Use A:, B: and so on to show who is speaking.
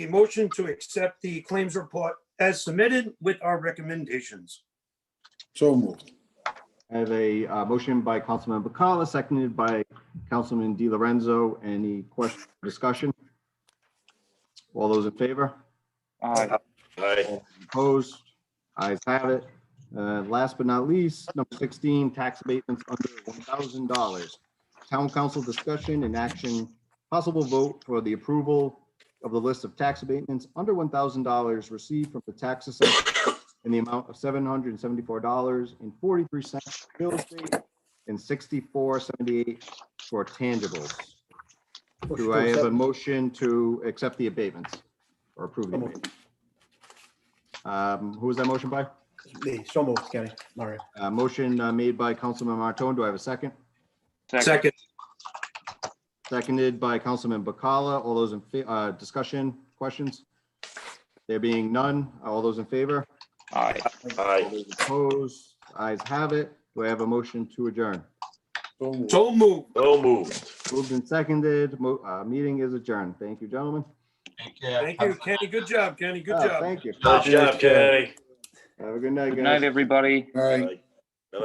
A: a motion to accept the claims report as submitted with our recommendations.
B: So moved.
C: I have a uh, motion by Councilman Bacala, seconded by Councilman Di Lorenzo. Any question, discussion? All those in favor?
D: Aye.
E: Aye.
C: Opposed? Ayes have it. Uh, Last but not least, number 16, tax abatements under $1,000. Town council discussion and action, possible vote for the approval of the list of tax abatements under $1,000 received from the tax assessor in the amount of $774.43 for real estate and $64.78 for tangibles. Do I have a motion to accept the abatements or approve the abatements? Um, Who was that motion by?
B: Me, So moved, Kenny. Mario.
C: Uh, Motion uh, made by Councilman Martone. Do I have a second?
A: Second,
C: Seconded by Councilman Bacala. All those in, fa- uh, discussion, questions? There being none, all those in favor?
D: Aye.
C: All
E: Aye.
C: those Opposed? Ayes have it. Do I have a motion to adjourn?
B: So moved.
A: so moved.
E: So moved.
C: Moved and seconded. Mo- uh, Meeting is adjourned. Thank you, gentlemen.
A: Thank you, Kenny. Good job, Kenny. Good
C: Oh,
A: job.
C: Thank you.
E: Good job, Kenny.
C: Have a good night,
D: Good night,
C: guys.
D: everybody.
B: All right.
E: Aye.